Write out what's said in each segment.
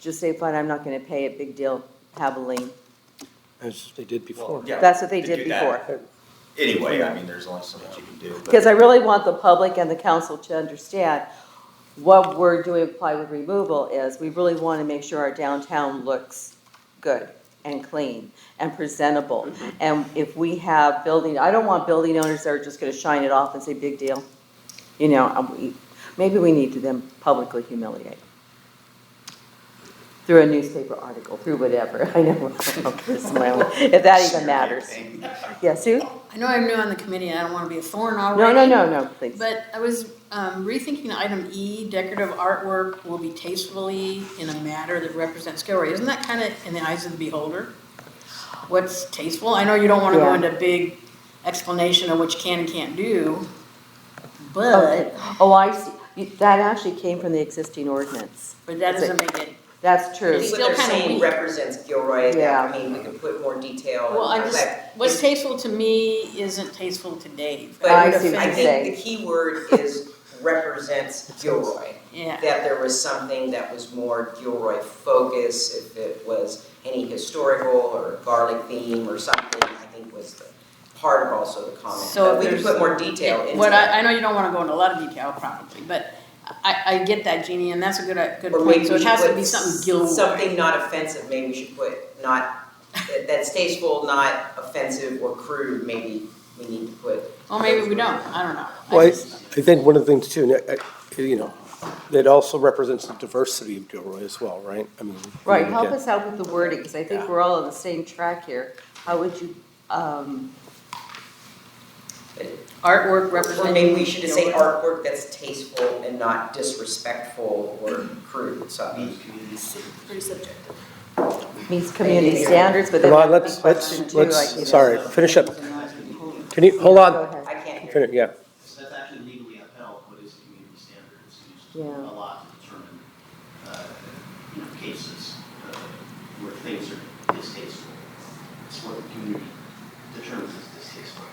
just say, fine, I'm not gonna pay it, big deal, have a lien. as they did before. yeah, That's what they to did do that. before. Anyway, I mean, there's only so much you can do. but- Because I really want the public and the council to understand what we're doing with plywood removal is, we really want to make sure our downtown looks good and clean and presentable. And if we have building, I don't want building owners that are just going to shine it off and say, big deal. You know, um, we- maybe we need to then publicly humiliate through a newspaper article, through whatever, I know, if that even matters. Yeah, Sue? I know I'm new on the committee and I don't want to be a thorn No, already. no, no, no, please. But I was um, rethinking item E, decorative artwork will be tastefully in a manner that represents Gilroy. Isn't that kind of in the eyes of the beholder? What's tasteful? I know you don't want to go Yeah. into big explanation of what you can and can't do, Okay. but, Oh, I see, You- that actually came from the existing ordinance. but that That's it. doesn't make it, That's I true. think It's what still they're kinda saying weak. represents Gilroy, Yeah. I mean, we could put more detail. and well, I all just, that. what's tasteful to me isn't tasteful to Dave. But I I see what you're saying. think the key word is represents Gilroy. Yeah. That there was something that was more Gilroy focus, if it was any historical or garlic theme or something, I think was the part of also the comment. So But we could there's- put more detail into it. What I, I know you don't wanna go into a lot of detail probably, but I, I get that, Jeannie, and that's a good, a good Or maybe point, so we it should has to put be something s- Gilroy. Something not offensive, maybe we should put not, that- that's tasteful, not offensive or crude, maybe we need to put. Well, maybe we don't, I don't know. I Well, I, I just- think one of the things too, and I- I- you know, that also represents the diversity of Gilroy as well, right? I mean. Right, we help get- us out with the wording, because I think Yeah. we're all on the same track here. How would you, um, Artwork Or representing. maybe we should just say Gilroy. artwork that's tasteful and not disrespectful or crude, so. Pretty subjective. meets community standards, but then. Come on, that's let's, a big question let's, too, like, you know. let's, sorry, finish up. Can you, Go hold on, ahead. I can't hear. finish, yeah. So that's actually legally upheld, what is community standard, it's used Yeah. a lot to determine, uh, you know, cases, uh, where things are distasteful. It's what the community determines is distasteful.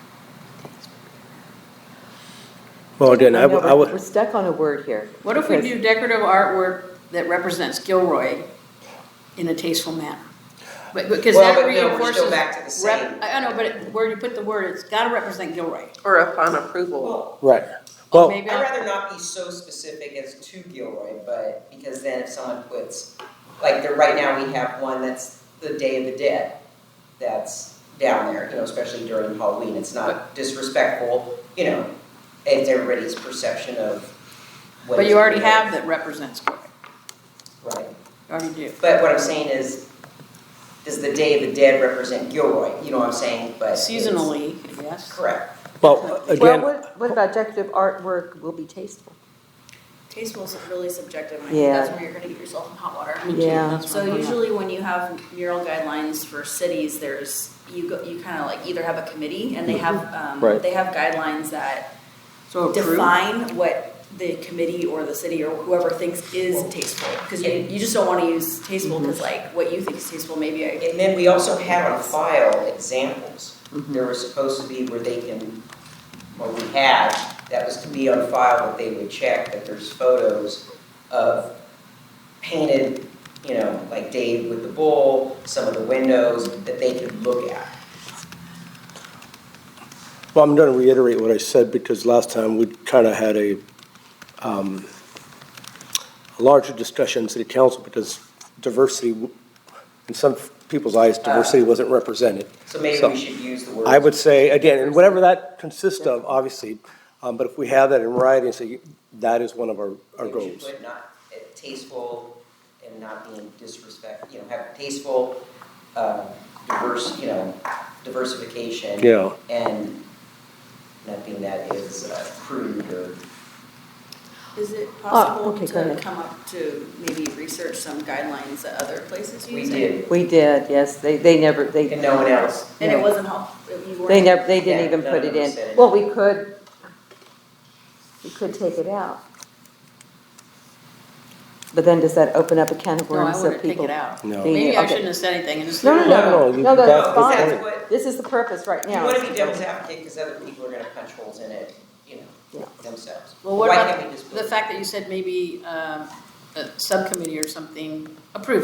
Well, again, I I know, would, I but would. We're stuck on a word here. What if we because- do decorative artwork that represents Gilroy in a tasteful manner? But, because that Well, but no, we're reinforces. still back to the rep- same. I I know, but it- where you put the word, it's gotta represent Gilroy. Or upon approval. Well, Right. Well, Maybe I'd I'll- rather not be so specific as to Gilroy, but, because then if someone puts, like, there, right now, we have one that's the Day of the Dead, that's down there, you know, especially during Halloween, it's not disrespectful, you know, it's everybody's perception of what But is you already Gilroy. have that represents Gilroy, Right, you already do. but what I'm saying is, does the Day of the Dead represent Gilroy, you know what I'm saying, but. it's- Seasonally, yes. Correct, well, Well, again, what, what about decorative artwork will be tasteful? Tasteful is really subjective, and I Yeah. think that's where you're gonna get yourself in hot water. Me too, Yeah. that's what So I'm talking about. usually when you have mural guidelines for cities, there's, you go, you kinda like either have a committee and they have, Mm-hmm. Right. um, they have guidelines that So Oh, approve. define what the committee or the city or whoever thinks is tasteful. Cause you, you just don't wanna use tasteful, Mm-hmm. cause like what you think is tasteful, maybe I. and then we also had on file examples, there were supposed to be where they can, what we had, that was to be on file, that they would check, that there's photos of painted, you know, like Dave with the bull, some of the windows, that they could look at. well, I'm gonna reiterate what I said because last time we kinda had a, um, a larger discussion in city council because diversity, w- in some people's eyes, diversity wasn't represented. Uh, So maybe So- we should use the word. I would say, again, and whatever that consists of, obviously, um, but if we have that in writing, say, that is one of our, our Maybe we should goals. put not uh, tasteful and not being disrespect, you know, have tasteful, um, diverse, you know, diversification. Yeah. And nothing that is uh, crude or Is it possible possible Ah, okay, go to to ahead. come up to maybe research some guidelines that other places we use? did, We did, yes, they, they never, they. and no one else. And it No. wasn't helpful, you weren't. They never, they Yeah, didn't even none put it of them said in. it. Well, we could, we could take it out. But then does that open up a can of No, I worms of wouldn't take people? it out. No. being- Maybe I okay. shouldn't have said anything and just. No, no, No, no, no, you- no, that's that- No, fine. that's what, This is the purpose right you now. wanna be devil's advocate, because other people are gonna punch holes in it, you Yeah. know, themselves. Well, what Why can't we about just put- uh, the fact that you said maybe um, a subcommittee or something approves